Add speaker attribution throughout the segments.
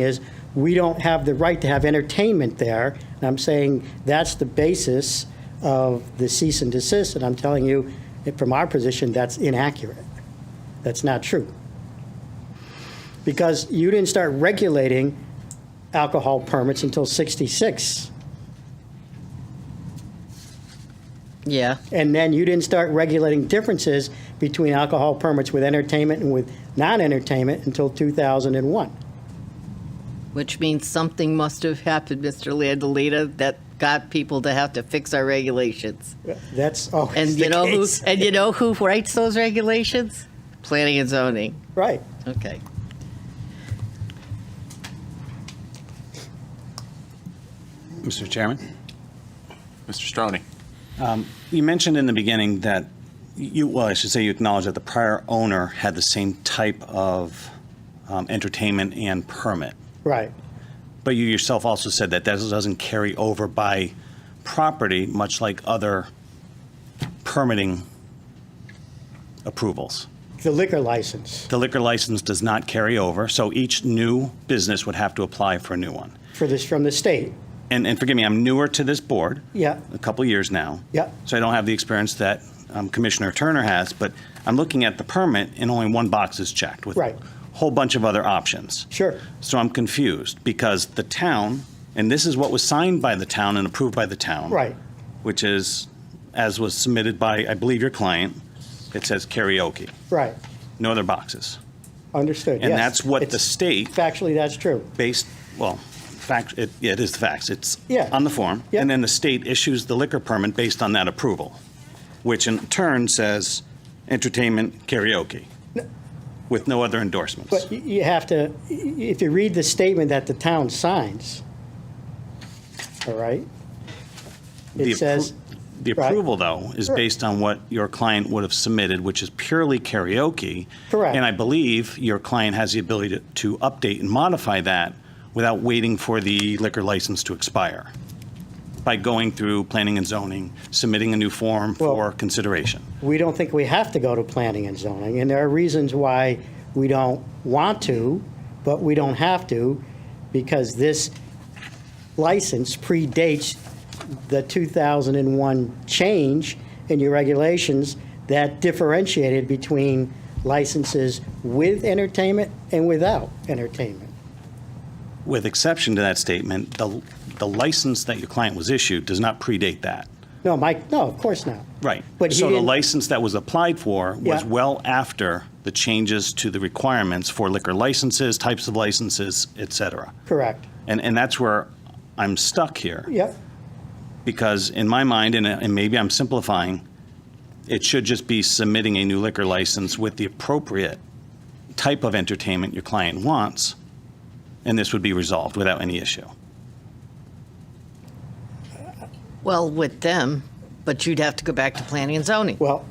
Speaker 1: is, we don't have the right to have entertainment there. And I'm saying that's the basis of the cease and desist, and I'm telling you, that from our position, that's inaccurate. That's not true. Because you didn't start regulating alcohol permits until 66,
Speaker 2: Yeah,
Speaker 1: and then you didn't start regulating differences between alcohol permits with entertainment and with non-entertainment until 2001.
Speaker 2: which means something must have happened, Mr. Landolita, that got people to have to fix our regulations.
Speaker 1: That's always
Speaker 2: And
Speaker 1: the
Speaker 2: you know who,
Speaker 1: case.
Speaker 2: and you know who writes those regulations? Planning and zoning.
Speaker 1: Right.
Speaker 2: Okay.
Speaker 3: Mr. Chairman, Um,
Speaker 4: Mr. Stroney.
Speaker 3: you mentioned in the beginning that you, well, I should say you acknowledge that the prior owner had the same type of um, entertainment and permit.
Speaker 1: Right.
Speaker 3: But you yourself also said that that doesn't carry over by property, much like other permitting approvals.
Speaker 1: The liquor license
Speaker 3: The liquor license does not carry over, so each new business would have to apply for a new one.
Speaker 1: for this, from the state.
Speaker 3: And, and forgive me, I'm newer to this board.
Speaker 1: Yeah.
Speaker 3: a couple years now.
Speaker 1: Yep.
Speaker 3: So I don't have the experience that um, Commissioner Turner has, but I'm looking at the permit and only one box is checked with
Speaker 1: Right.
Speaker 3: a whole bunch of other options.
Speaker 1: Sure.
Speaker 3: So I'm confused because the town, and this is what was signed by the town and approved by the town.
Speaker 1: Right.
Speaker 3: Which is, as was submitted by, I believe, your client, it says karaoke,
Speaker 1: Right.
Speaker 3: no other boxes.
Speaker 1: Understood.
Speaker 3: And
Speaker 1: yes.
Speaker 3: that's what the
Speaker 1: It's-
Speaker 3: state
Speaker 1: Factually, that's true.
Speaker 3: based, well, fact, it, yeah, it is the facts. It's
Speaker 1: Yeah.
Speaker 3: on the form.
Speaker 1: Yeah.
Speaker 3: And then the state issues the liquor permit based on that approval, which in turn says entertainment karaoke with no other endorsements.
Speaker 1: But y- you have to, y- if you read the statement that the town signs, all right?
Speaker 3: The
Speaker 1: It
Speaker 3: appro-
Speaker 1: says,
Speaker 3: The
Speaker 1: right.
Speaker 3: approval, though, is
Speaker 1: Sure.
Speaker 3: based on what your client would have submitted, which is purely karaoke.
Speaker 1: Correct.
Speaker 3: And I believe your client has the ability to- to update and modify that without waiting for the liquor license to expire by going through planning and zoning, submitting a new form
Speaker 1: Well-
Speaker 3: for consideration.
Speaker 1: we don't think we have to go to planning and zoning, and there are reasons why we don't want to, but we don't have to, because this license predates the 2001 change in your regulations that differentiated between licenses with entertainment and without entertainment.
Speaker 3: With exception to that statement, the the license that your client was issued does not predate that.
Speaker 1: No, Mike, no, of course not.
Speaker 3: Right.
Speaker 1: But he
Speaker 3: So the
Speaker 1: didn't-
Speaker 3: license that was applied for was
Speaker 1: Yeah.
Speaker 3: well after the changes to the requirements for liquor licenses, types of licenses, et cetera.
Speaker 1: Correct.
Speaker 3: And, and that's where I'm stuck here.
Speaker 1: Yep,
Speaker 3: Because in my mind, and, and maybe I'm simplifying, it should just be submitting a new liquor license with the appropriate type of entertainment your client wants, and this would be resolved without any issue.
Speaker 2: Well, with them, but you'd have to go back to planning and zoning
Speaker 1: well,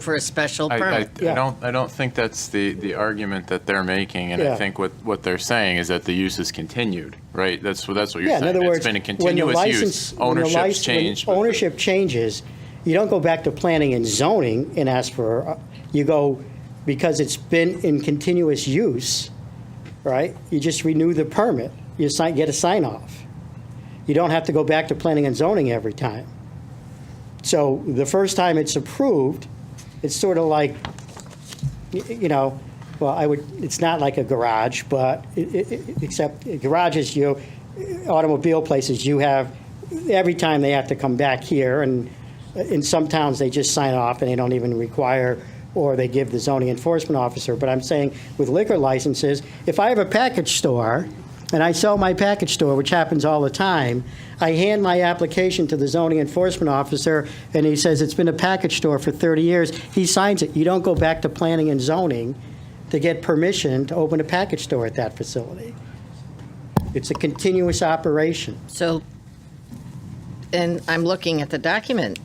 Speaker 2: for a special
Speaker 4: I, I, I
Speaker 2: permit.
Speaker 1: Yeah.
Speaker 4: don't, I don't think that's the, the argument that they're making, and
Speaker 1: Yeah.
Speaker 4: I think what, what they're saying is that the use is continued, right? That's, what that's what you're
Speaker 1: yeah,
Speaker 4: saying.
Speaker 1: in other words.
Speaker 4: It's been a
Speaker 1: when the
Speaker 4: continuous
Speaker 1: license-
Speaker 4: use.
Speaker 1: when the
Speaker 4: Ownership's
Speaker 1: lic- when
Speaker 4: changed. but the-
Speaker 1: Ownership changes, you don't go back to planning and zoning and ask for, uh, you go, because it's been in continuous use, right? You just renew the permit, you sign, get a sign off. You don't have to go back to planning and zoning every time. So the first time it's approved, it's sort of like, y- you know, well, I would, it's not like a garage, but, i- i- i- except garages, you, automobile places, you have, every time they have to come back here, and in some towns, they just sign off and they don't even require, or they give the zoning enforcement officer, but I'm saying with liquor licenses, if I have a package store, and I sell my package store, which happens all the time, I hand my application to the zoning enforcement officer, and he says, it's been a package store for 30 years, he signs it, you don't go back to planning and zoning to get permission to open a package store at that facility. It's a continuous operation.
Speaker 2: So, and I'm looking at the document,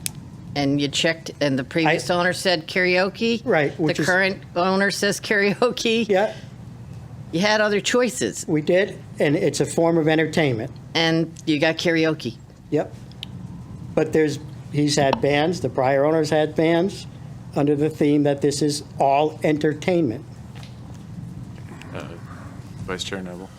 Speaker 2: and you checked, and the previous
Speaker 1: I-
Speaker 2: owner said karaoke.
Speaker 1: Right,
Speaker 2: The
Speaker 1: which is-
Speaker 2: current owner says karaoke.
Speaker 1: Yeah,
Speaker 2: You had other choices,
Speaker 1: we did, and it's a form of entertainment.
Speaker 2: and you got karaoke.
Speaker 1: Yep. But there's, he's had bands, the prior owners had bands, under the theme that this is all entertainment.
Speaker 4: Vice Chair Noble.